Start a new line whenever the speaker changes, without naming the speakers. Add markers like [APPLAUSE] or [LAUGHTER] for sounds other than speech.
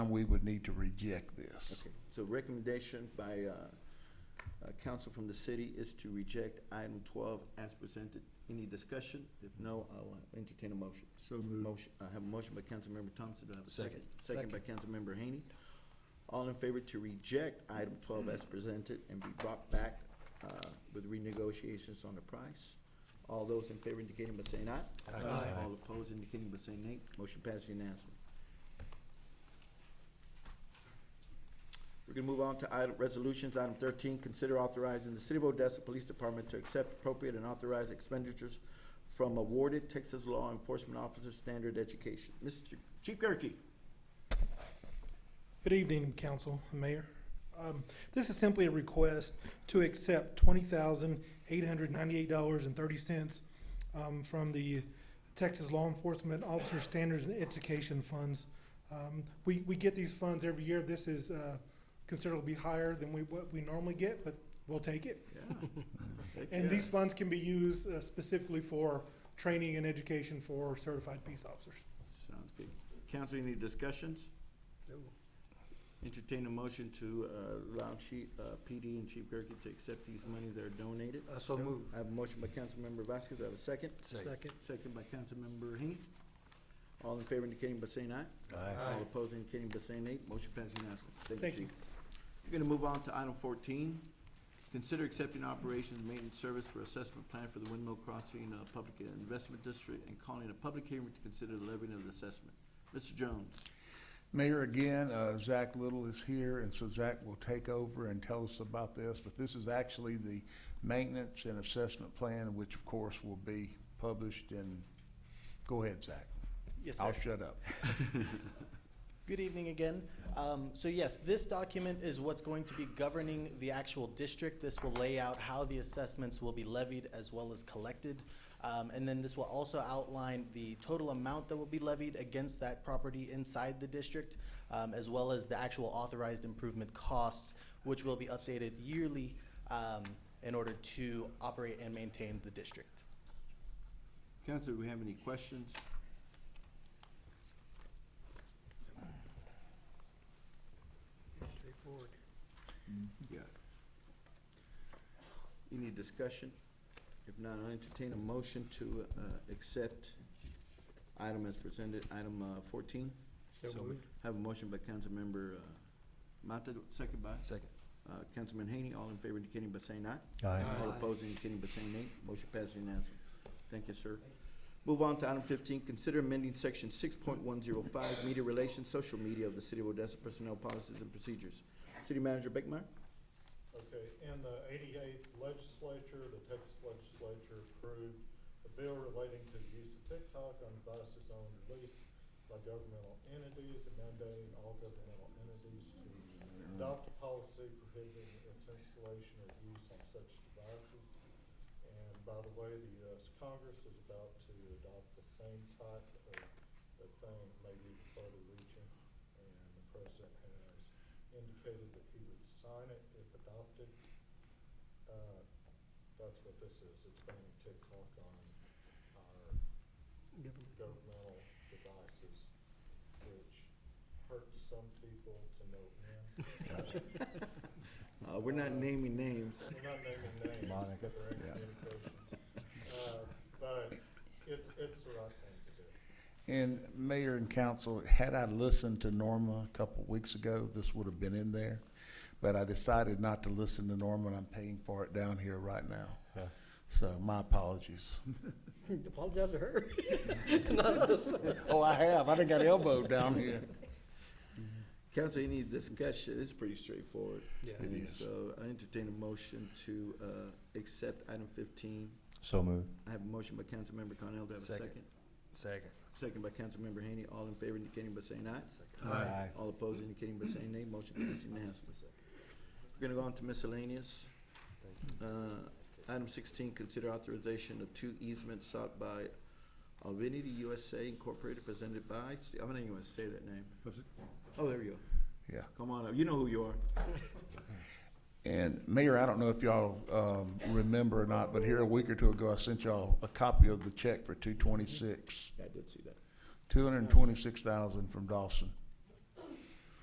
time we would need to reject this.
Okay, so recommendation by, uh, uh, council from the city is to reject item twelve as presented. Any discussion? If no, I'll uh, entertain a motion. So moved. Motion, I have a motion by Councilmember Thompson, do I have a second? Second by Councilmember Haney. All in favor to reject item twelve as presented and be brought back, uh, with renegotiations on the price? All those in favor indicating by saying aye. Aye. All opposed indicating by saying nay. Motion passed unanimously. We're gonna move on to item, resolutions, item thirteen, consider authorizing the City of Odessa Police Department to accept appropriate and authorized expenditures from awarded Texas Law Enforcement Officer Standard Education. Mr. Chief Gerke.
Good evening, Council and Mayor. Um, This is simply a request to accept twenty thousand eight hundred ninety-eight dollars and thirty cents um, from the Texas Law Enforcement Officer Standards and Education Funds. Um, We, we get these funds every year. This is uh, considerably higher than we, what we normally get, but we'll take it. And these funds can be used uh, specifically for training and education for certified peace officers.
Sounds good. Council, any discussions? Entertain a motion to, uh, allow Chief, uh, PD and Chief Gerke to accept these monies that are donated.
So moved.
I have a motion by Councilmember Vasquez, Do I have a second.
Second.
Second by Councilmember Haney. All in favor indicating by saying aye. All opposed indicating by saying nay. Motion passed unanimously.
Thank you.
Chief. We're gonna move on to item fourteen. Consider accepting operations and maintenance service for assessment plan for the Windmill Crossing uh, Public Investment District and calling a public hearing to consider the levying of the assessment. Mr. Jones.
Mayor, again, uh, Zach Little is here, and so Zach will take over and tell us about this. But this is actually the maintenance and assessment plan, which of course will be published and, go ahead, Zach.
Yes,
I'll
sir.
shut up.
[LAUGHS] Good evening again. Um, so yes, this document is what's going to be governing the actual district. This will lay out how the assessments will be levied as well as collected. Um, and then this will also outline the total amount that will be levied against that property inside the district, um, as well as the actual authorized improvement costs, which will be updated yearly, um, in order to operate and maintain the district.
Council, do we have any questions? Yeah. Any discussion? If not, I'll entertain a motion to, uh, accept item as presented, item, uh, fourteen.
So moved.
Have a motion by Councilmember, uh, Mata, second by,
Second.
uh, Councilman Haney, all in favor indicating by saying aye.
Aye.
All opposed indicating by saying nay. Motion passes unanimously. Thank you, sir. Move on to item fifteen, consider amending section six point one zero five, media relations, social media of the City of Odessa Personnel Policies and Procedures. City Manager Beckmeyer?
Okay, in the eighty-eighth legislature, the Texas legislature approved a bill relating to the use of TikTok on devices owned or leased by governmental entities and mandating all governmental entities to adopt a policy prohibiting its installation or use on such devices. And by the way, the US Congress is about to adopt the same type of, of thing, maybe further reaching. And the president has indicated that he would sign it if adopted. Uh, That's what this is, it's banning TikTok on our governmental devices, which hurts some people to no end.
Uh, we're not naming names.
We're not naming names.
Monica.
but there ain't
Yeah.
communications. Uh, But it's, it's the right thing to do.
And Mayor and Council, had I listened to Norma a couple weeks ago, this would have been in there. But I decided not to listen to Norma, and I'm paying for it down here right now.
Yeah.
So my apologies.
[LAUGHS] Apologize to
[LAUGHS]
her.
Oh, I have. I done got elbowed down
[LAUGHS]
here.
Council, any discussion? It's pretty straightforward.
Yeah.
It
And
is.
So I entertain a motion to, uh, accept item fifteen.
So moved.
I have a motion by Councilmember Cornell. Do I have a
Second.
second?
Second.
Second by Councilmember Haney. All in favor indicating by saying aye.
Aye.
All opposed indicating by saying nay. Motion passes unanimously. We're gonna go on to miscellaneous. Uh, Item sixteen, consider authorization of two easements sought by Alvinity USA Incorporated presented by, I'm not even gonna say that name. Oh, there you go.
Yeah.
Come on up. You know who you are.
And Mayor, I don't know if y'all, um, remember or not, but here a week or two ago, I sent y'all a copy of the check for two twenty-six,
I did see that.
two hundred and twenty-six thousand from Dawson.